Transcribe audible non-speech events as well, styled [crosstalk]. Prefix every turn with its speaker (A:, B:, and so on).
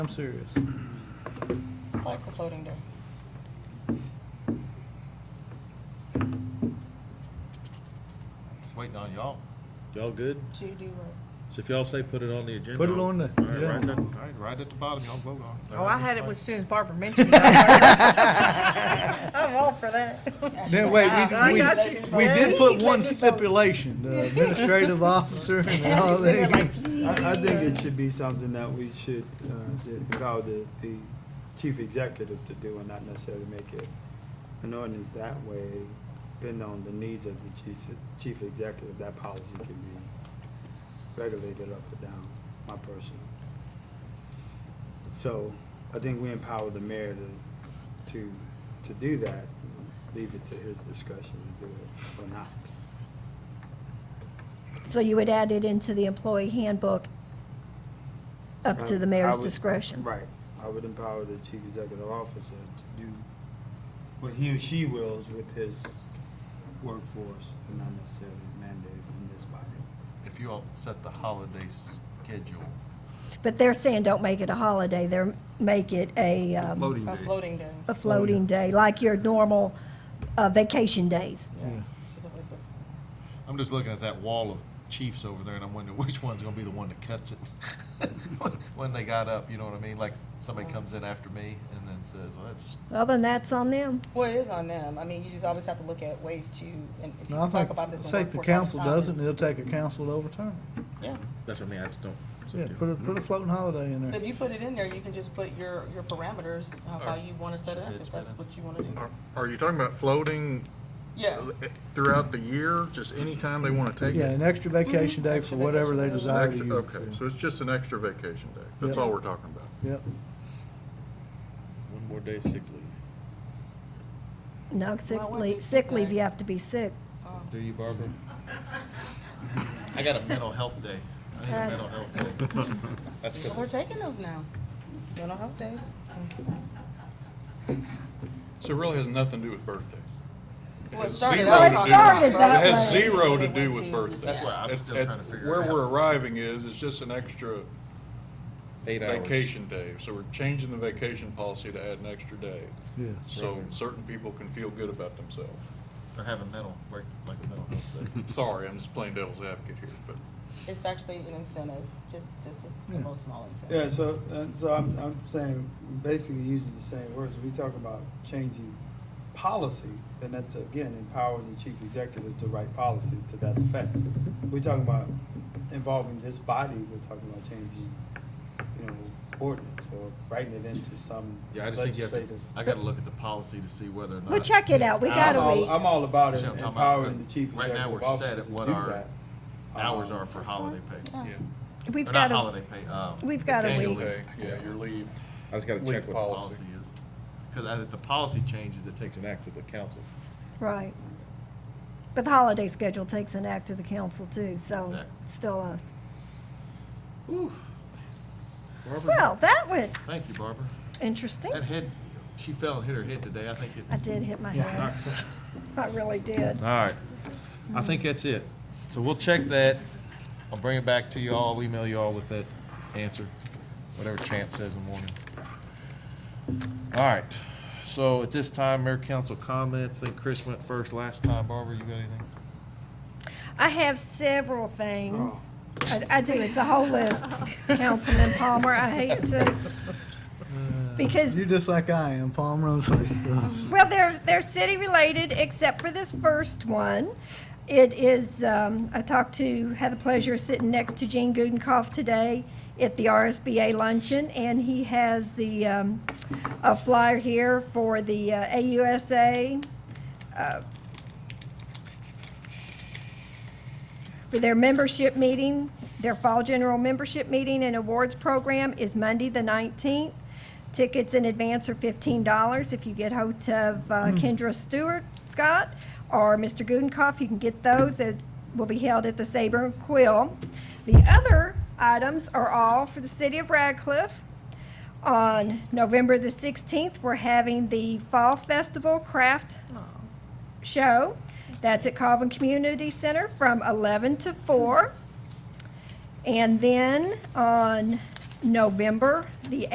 A: I'm serious.
B: like a floating day.
C: Just waiting on y'all.
D: Y'all good?
B: To do what?
D: So if y'all say put it on the agenda.
A: Put it on the-
D: All right,
A: yeah.
D: right there.
C: All right, right at the bottom, y'all vote on. it.
B: Oh, I had it as soon as Barbara mentioned it. I'm all for that.
A: Then wait,
B: I
A: we,
B: got you.
A: we, we did put one stipulation,
B: [laughs]
A: the administrative officer and all that.
E: I, I think it should be something that we should, uh, ju- allow the, the chief executive to do and not necessarily make it an ordinance that way, depending on the needs of the chief, chief executive, that policy can be regulated up or down, my personal. So I think we empower the mayor to, to, to do that, leave it to his discretion to do it or not.
F: So you would add it into the employee handbook up to the
E: Uh, I- I
F: mayor's
E: would-
F: discretion?
E: Right. I would empower the chief executive officer to do what he or she wills with his workforce and not necessarily mandated from this body.
C: If you all set the holiday schedule.
F: But they're saying don't make it a holiday, they're, make it a, um,
C: Floating
B: A
C: day.
B: floating day.
F: a floating day, like your normal uh, vacation days.
B: Yeah. It's a- it's a-
C: I'm just looking at that wall of chiefs over there and I'm wondering [laughs] which one's gonna be the one that cuts it. [laughs] When they got up, you know what I mean? Like somebody comes in after me and then says, well, that's,
F: Well, then that's on them.
B: Well, it is on them. I mean, you just always have to look at ways to, and if you
A: No, I
B: talk about
A: think,
B: this in
A: say the
B: workforce all
A: council
B: the time.
A: does it,
B: is-
A: and they'll take a council to overturn it.
B: Yeah.
D: That's what I mean, I just don't.
A: Yeah, put a,
G: Mm-hmm.
A: put a floating holiday in there.
B: If you put it in there, you can just put your, your parameters, how- how you want to set it up, if that's what you want to do.
G: Are- Are you talking about floating
B: Yeah.
G: throughout the year, just anytime they want to take
A: Yeah,
G: it?
A: an extra
B: Mm-hmm.
A: vacation day for whatever they
G: An
A: desire to
G: extra-
A: use.
G: Okay,
A: yeah.
G: so it's just an extra vacation day. That's
A: Yeah.
G: all we're talking about.
A: Yep,
D: One more day sick leave.
F: No,
B: Well,
F: sick
B: what
F: leave,
B: is
F: sick
B: sick
F: leave,
B: day?
F: you have to be sick.
B: Um,
D: Do you, Barbara?
C: I got a mental health day. I need a mental health day.
D: [laughs] That's
B: Well, We're taking those now. Mental health days.
H: So it really has nothing to do with birthdays.
B: Well, it
H: has
B: started
H: zero
B: out
H: to
B: like-
H: do-
F: started
H: It
F: that
H: has
F: way.
H: zero to do
B: Yeah.
H: with birthdays.
C: That's why I'm
H: At-
C: still
H: at
C: trying to figure it out.
H: Where we're arriving is, it's just an extra
D: Eight hours.
H: vacation day. So we're changing the vacation policy to add an extra day.
A: yes.
H: So certain people can feel good about themselves.
D: [laughs]
C: Or have a mental, break, like a mental health
H: [laughs]
C: day.
H: Sorry, I'm just playing devil's advocate here, but
B: It's actually an incentive, just, just a
A: Yeah.
B: little small
E: Yeah,
B: incentive.
E: so, and so I'm, I'm saying, basically using the same words, we talk about changing policy, then that's again empowering the chief executive to write policy to that effect. We're talking about involving this body, we're talking about changing, you know, ordinance or writing it into some
C: Yeah, I just think you have to,
E: legislative.
C: I gotta look at the policy to see whether or not.
F: We'll check it out. We
E: I'm
F: gotta
E: all,
F: read.
E: I'm all about
C: See what I'm talking about?
E: empowering the chief
C: Right now,
E: executive
C: we're set
E: officer to
C: at
E: do
C: what our
E: that.
C: Hours
E: Um,
C: are for holiday pay.
B: Yeah.
F: We've
C: Or not
F: got
C: holiday
F: a,
C: pay, um.
F: we've got a
C: annual
F: week.
C: leave.
H: okay, yeah, your leave,
D: I just gotta check
H: leave
D: what the
H: policy.
C: policy is. Because if the policy changes, it takes
D: takes
C: an
D: an act of the council.
F: right. But the holiday schedule takes an act of the council too, so
C: Exactly.
F: it's still us.
C: Ooh,
F: Well, that went
C: thank you, Barbara.
F: interesting.
C: That head, she fell and hit her head today, I think it.
F: I did hit my head. I really did.
D: All right. I think that's it. So we'll check that.
C: I'll bring it back to you all, I'll email you all with that answer, whatever Chance says in the morning.
D: All right. So at this time, mayor council comments. I think Chris went first last time. Barbara, you got anything?
F: I have several things. I, I do, it's a whole list, Councilman Palmer, I hate to. Because,
A: You're just like I am, Palmer,
B: [laughs]
A: I'm sorry.
F: well, they're, they're city-related, except for this first one. It is, um, I talked to, had the pleasure of sitting next to Gene Gudenkauf today at the RSBA luncheon, and he has the, um, a flyer here for the uh, AUSA, uh, for their membership meeting, their fall general membership meeting and awards program is Monday, the 19th. Tickets in advance are $15. If you get hold of uh, Kendra Stewart, Scott, or Mr. Gudenkauf, you can get those. It will be held at the Saber and Quill. The other items are all for the city of Radcliffe. On November the 16th, we're having the Fall Festival Craft Show. That's at Calvin Community Center from 11 to 4. And then on November the